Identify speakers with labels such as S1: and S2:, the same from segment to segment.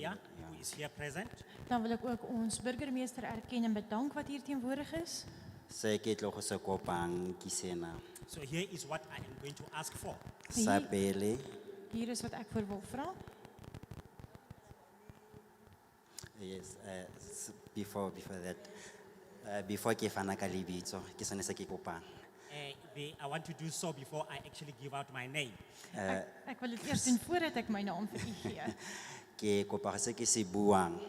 S1: Jan, who is here present.
S2: Dan wil ik ook ons burgemeester erkennen en bedanken wat hier tegenwoordig is.
S3: se ke tlo go se kopang ke sena
S1: So here is what I am going to ask for.
S3: sa
S2: Hi.
S3: pele
S2: Hier is wat ik voor wil vragen.
S3: yes eh, s- before before that eh, before ke fana ka lebitso ke sone se ke kopang
S1: Eh, the- I want to do so before I actually give out my name.
S2: Ik- Ik wil het eerst doen voordat ik mijn naam voor u geef.
S3: ke kopa gore se ke se buang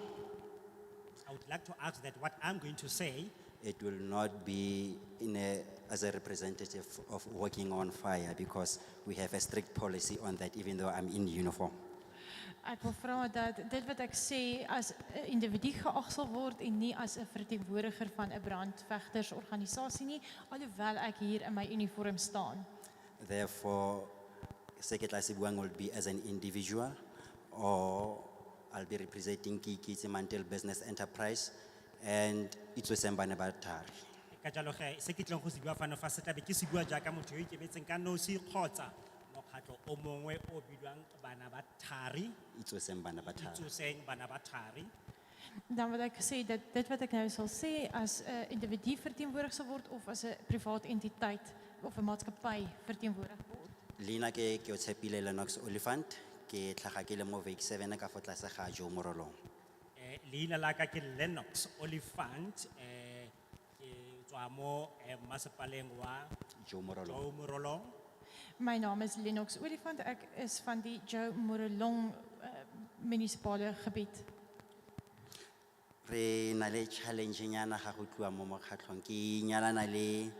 S1: I would like to ask that what I'm going to say
S3: it will not be in a, as a representative of working on fire because we have a strict policy on that even though I'm in uniform.
S2: Ik wil vragen dat dit wat ik zei als een individu geacht zal worden en niet als een vertegenwoordiger van een brandvechtersorganisatie, nie, alhoewel ik hier in mijn uniform sta.
S3: Therefore, seketla sibuang will be as an individual or I'll be representing Kiki Mantel Business Enterprise and itso sembane batari.
S1: ka jalo ge se ke tlong go se bua fano fa se tlabe ke se bua jaaka motho yo ikemetseng ka nosi kgotsa mokgatlho o mongwe o bidiwang bana ba thari
S3: Itso sembane batari.
S1: itsoseng bana ba thari
S2: Dan wil ik zeggen dat dit wat nou ik nu zal zeggen als een individu vertegenwoordigd zal worden of als een privaat entiteit of een maatschappij vertegenwoordigd wordt.
S3: Lina ke ke otshepile Lennox Oliphant ke tlhaga ke le mo Wake 7 ka fa tlase ga Jo Morolong.
S1: Eh, leina la ka ke lennox olifant um ke tswa mo eh, masepaleng wa
S3: Jo Morolong.
S1: jo morolong
S2: Mijn naam is Lennox Olifant, ik is van die Joe Morelong eh, municipale gebied.
S3: Re na le challenge nyana ha go tluwa mo mokgatlhong ke nyalana le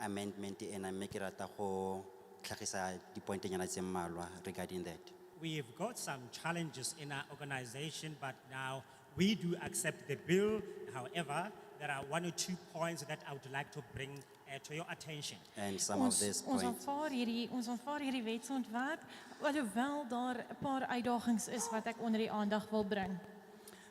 S3: amendment ena mme ke rata go tlhagisa di point nyana tse mmalwa regarding that.
S1: We've got some challenges in our organization, but now we do accept the bill. However, there are one or two points that I would like to bring uh, to your attention.
S3: And some of
S2: Ons,
S3: these
S2: ons,
S3: points,
S2: aanvaar hierdie, ons aanvaar hierdie wetsontwerp, alhoewel daar een paar uitdagings is wat ik onder die aandacht wil brengen.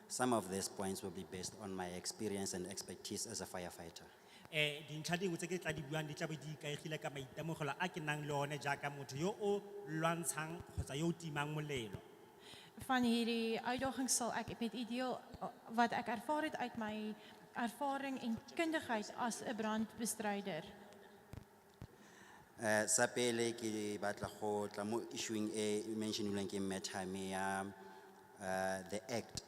S3: some of these points will be based on my experience and expertise as a firefighter.
S1: Eh, dintlha dingwe tse ke tla di buang di tla be di ikaegile ka maitemogelo a ke nang le one jaaka motho yo o lwantshang kgotsa yo o timang molelo.
S2: Van hierdie uitdagings sal ek met u deel eh, wat ek ervaar het uit my ervaring en kundigheid as 'n brandbestryder.
S3: Eh, sa pele ke batla go tla mo issuing e mentionilweng ke Methame ya eh, the act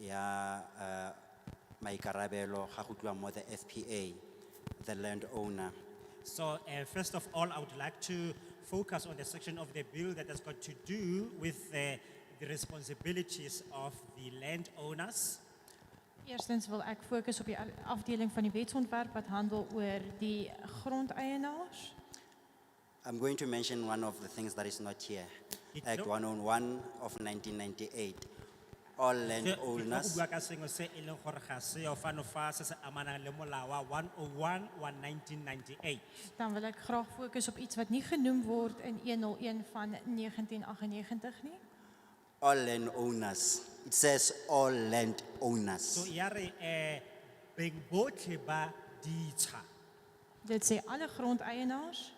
S3: ya eh, maikarabelo ga go tluwa mo the FPA, the landowner.
S1: So uh, first of all, I would like to focus on the section of the bill that has got to do with uh, the responsibilities of the landowners.
S2: Eerstens wil ek fokus op die al- afdeling van die wetsontwerp wat handel oor die grondeienaars.
S3: I'm going to mention one of the things that is not here.
S1: It
S3: Act
S1: no-
S3: 101 of 1998. All
S1: Ke- ke tlo go
S3: landowners,
S1: bua ka sengwe se e leng gore ga seo fano fa se se amanang le molao wa 101 wa 1998.
S2: Dan wil ek graag fokus op iets wat nie genoem word in 101 van 1998 nie.
S3: all landowners. It says all landowners.
S1: So ya re eh beng botlhe ba ditsha
S2: Dit sê alle grondeienaars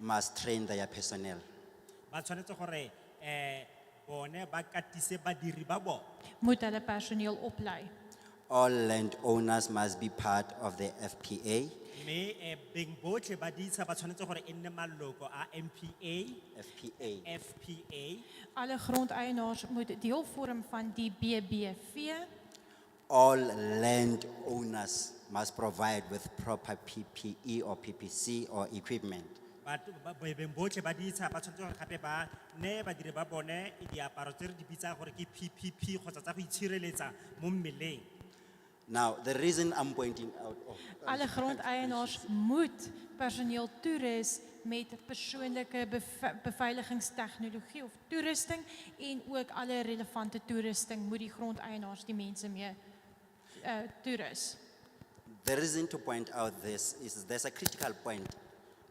S3: Must train their personnel.
S1: ba tshwanetse gore eh bone ba katise badiri ba bone.
S2: moet hulle personeel oplei.
S3: All landowners must be part of the FPA.
S1: Mme eh beng botlhe ba ditsha ba tshwanetse gore e nne maloko a MPA,
S3: FPA.
S1: FPA.
S2: Alle grondeienaars moet deel vorm van die BBV
S3: All landowners must provide with proper PPE or PPC or equipment.
S1: But beng botlhe ba ditsha ba tshwanetse gore gape ba ne badiri ba bone diaparo tse re di bitsang gore ke PPP kgotsa tsa go itshireletsa mo mmeleng.
S3: Now, the reason I'm pointing out. oh,
S2: Alle grondeienaars moet personeel toerus met persoonlijke beve- beveiligingstechnologie of toerusting en ook alle relevante toerusting moet die grondeienaars die mense mee uh, toerus.
S3: The reason to point out this is there's a critical point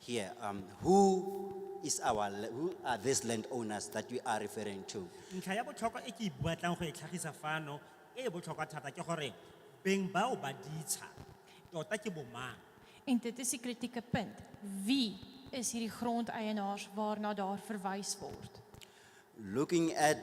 S3: here. Um, who is our, la- who are these landowners that we are referring to?
S1: ntlha ya botlhokwa e ke e batlang go e tlhagisa fano e e botlhokwa thata ke gore beng bao ba ditsha tota ke bomang
S2: En dit is die kritieke punt. Wie is hierdie grondeienaars waarna daar verwys word?
S3: Looking at